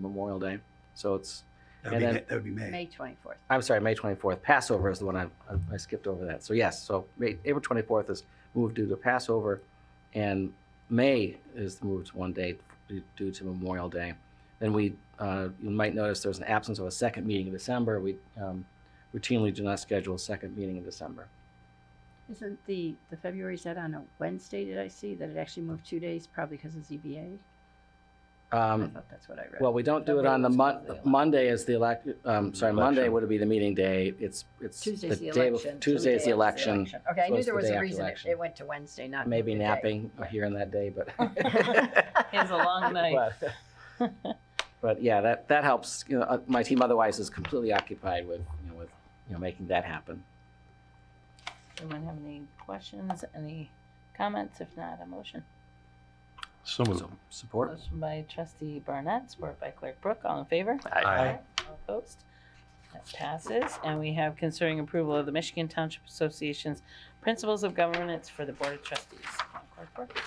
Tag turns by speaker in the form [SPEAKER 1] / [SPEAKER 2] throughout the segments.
[SPEAKER 1] Memorial Day. So it's,
[SPEAKER 2] That would
[SPEAKER 1] And
[SPEAKER 2] be,
[SPEAKER 1] then-
[SPEAKER 2] that would be May.
[SPEAKER 3] May 24th.
[SPEAKER 1] I'm sorry, May 24th. Passover is the one I, I skipped over that. So yes, so May, April 24th is moved due to Passover, and May is moved one day due- due to Memorial Day. Then we, uh, you might notice there's an absence of a second meeting in December. We um, routinely do not schedule a second meeting in December.
[SPEAKER 3] Isn't the, the February, is that on a Wednesday, did I see, that it actually moved two days, probably because of ZBA? I
[SPEAKER 1] Um,
[SPEAKER 3] thought that's what I read.
[SPEAKER 1] well, we don't do it on the mon- Monday is the elect. Um, sorry, Monday
[SPEAKER 4] Election.
[SPEAKER 1] would be the meeting day. It's it's
[SPEAKER 3] Tuesday's the
[SPEAKER 1] day bef-
[SPEAKER 3] election. so the
[SPEAKER 1] Tuesday is the
[SPEAKER 3] day after
[SPEAKER 1] election.
[SPEAKER 3] Okay, I
[SPEAKER 1] so
[SPEAKER 3] knew
[SPEAKER 1] it's
[SPEAKER 3] there
[SPEAKER 1] the
[SPEAKER 3] was
[SPEAKER 1] day
[SPEAKER 3] a
[SPEAKER 1] after
[SPEAKER 3] reason it-
[SPEAKER 1] election.
[SPEAKER 3] it went to Wednesday, not.
[SPEAKER 1] Maybe
[SPEAKER 3] the day.
[SPEAKER 1] napping here and that day, but.
[SPEAKER 5] It was a long night.
[SPEAKER 1] But- But yeah, that, that helps, you know, uh, my team otherwise is completely occupied with, you know, with, you know, making that happen.
[SPEAKER 5] Anyone have any questions, any comments? If not, a motion.
[SPEAKER 4] So moved.
[SPEAKER 1] So, Support?
[SPEAKER 5] Motion by trustee Barnett, support by clerk Brooke. All in favor?
[SPEAKER 4] Aye.
[SPEAKER 5] All opposed? That passes. And we have considering approval of the Michigan Township Association's Principles of Governance for the Board of Trustees. Clerk Brooke?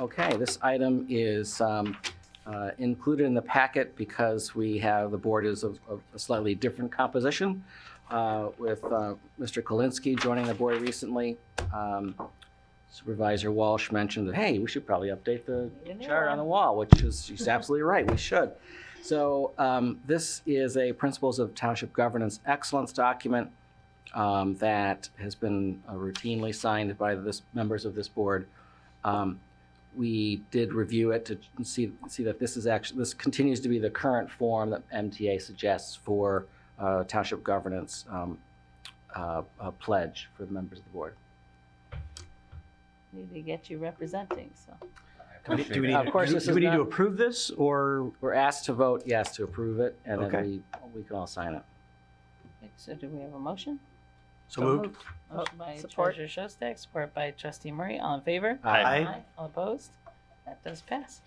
[SPEAKER 1] Okay, this item is um, uh, included in the packet because we have, the board is of of a slightly different composition uh, with uh, Mr. Kolinsky joining the board recently. Um, Supervisor Walsh mentioned that, hey, we should probably update the
[SPEAKER 5] Need a new
[SPEAKER 1] chart on
[SPEAKER 5] one.
[SPEAKER 1] the wall, which is, she's absolutely right, we should. So um, this is a Principles of Township Governance Excellence document um, that has been uh, routinely signed by this, members of this board. Um, we did review it to see, see that this is actually, this continues to be the current form that MTA suggests for uh, township governance um, uh, uh, pledge for the members of the board.
[SPEAKER 5] Need to get you representing, so.
[SPEAKER 2] Do we- do we need
[SPEAKER 1] Of
[SPEAKER 2] to-
[SPEAKER 1] course,
[SPEAKER 2] do we-
[SPEAKER 1] this
[SPEAKER 2] Do
[SPEAKER 1] is
[SPEAKER 2] we need
[SPEAKER 1] not-
[SPEAKER 2] to approve this or,
[SPEAKER 1] We're asked to vote yes to approve it, and
[SPEAKER 2] Okay.
[SPEAKER 1] then we, we can all sign it.
[SPEAKER 5] So do we have a motion?
[SPEAKER 2] so moved?
[SPEAKER 1] Oh,
[SPEAKER 5] Motion by
[SPEAKER 3] support.
[SPEAKER 5] treasurer Shostak, support by trustee Murray. All in favor?
[SPEAKER 1] Uh,
[SPEAKER 2] Aye.
[SPEAKER 5] All opposed? That does pass.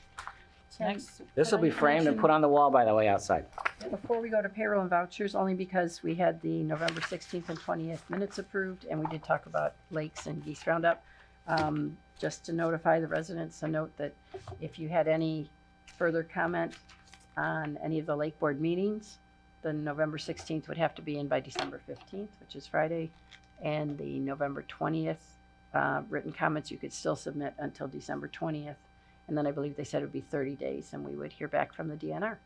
[SPEAKER 5] So
[SPEAKER 3] Yeah.
[SPEAKER 5] Next,
[SPEAKER 1] This will be framed and put on the wall, by the way, outside.
[SPEAKER 3] Before we go to payroll and vouchers, only because we had the November 16th and 20th minutes approved, and we did talk about lakes and geese roundup. Um, Just to notify the residents, a note that if you had any further comment on any of the lake board meetings, the November 16th would have to be in by December 15th, which is Friday, and the November 20th uh, written comments you could still submit until December 20th. And then I believe they said it would be 30 days, and we would hear back from the DNR.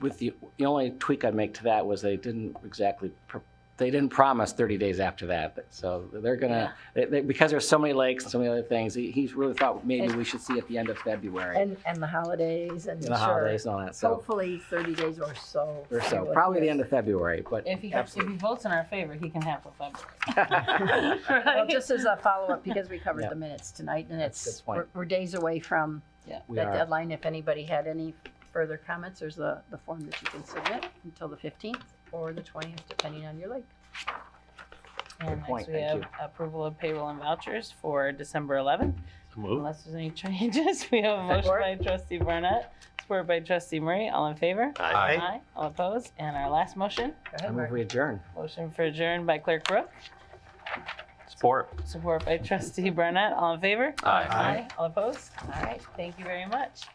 [SPEAKER 1] With the, the only tweak I'd make to that was they didn't exactly, pr- they didn't promise 30 days after that. So they're gonna, they- they- because there's so many lakes and so many other things, he- he's really thought maybe we should see at the end of February,
[SPEAKER 3] And, and the holidays and
[SPEAKER 1] and
[SPEAKER 3] sure.
[SPEAKER 1] the holidays and all that, so,
[SPEAKER 3] Hopefully thirty days or so.
[SPEAKER 1] or so, probably the end of February, but
[SPEAKER 5] If he, if
[SPEAKER 1] absolutely.
[SPEAKER 5] he votes in our favor, he can have a
[SPEAKER 1] That's
[SPEAKER 5] February.
[SPEAKER 3] Well, just as a follow-up, because we
[SPEAKER 1] Yeah.
[SPEAKER 3] covered the minutes tonight and
[SPEAKER 1] That's a
[SPEAKER 3] it's,
[SPEAKER 1] good point.
[SPEAKER 3] we're, we're days away from
[SPEAKER 1] We
[SPEAKER 3] that
[SPEAKER 1] are,
[SPEAKER 3] deadline. If anybody had any further comments, there's the, the form that you can submit until the fifteenth or the twentieth, depending on your lake.
[SPEAKER 5] And
[SPEAKER 1] point,
[SPEAKER 5] next we
[SPEAKER 1] thank
[SPEAKER 5] have approval of payroll and vouchers for December 11th.
[SPEAKER 4] Moved.
[SPEAKER 5] Unless there's any changes, we have a motion
[SPEAKER 3] Support.
[SPEAKER 5] by trustee Barnett, supported by trustee Murray. All in favor?
[SPEAKER 2] Aye.
[SPEAKER 5] All opposed? And our last motion,
[SPEAKER 3] Go
[SPEAKER 1] I
[SPEAKER 3] ahead,
[SPEAKER 1] move
[SPEAKER 3] Mark.
[SPEAKER 1] we adjourn.
[SPEAKER 5] motion for adjourn by clerk Brooke,
[SPEAKER 4] Support.
[SPEAKER 5] support by trustee Barnett. All in favor?
[SPEAKER 4] Aye.
[SPEAKER 5] All opposed? All right, thank you very much.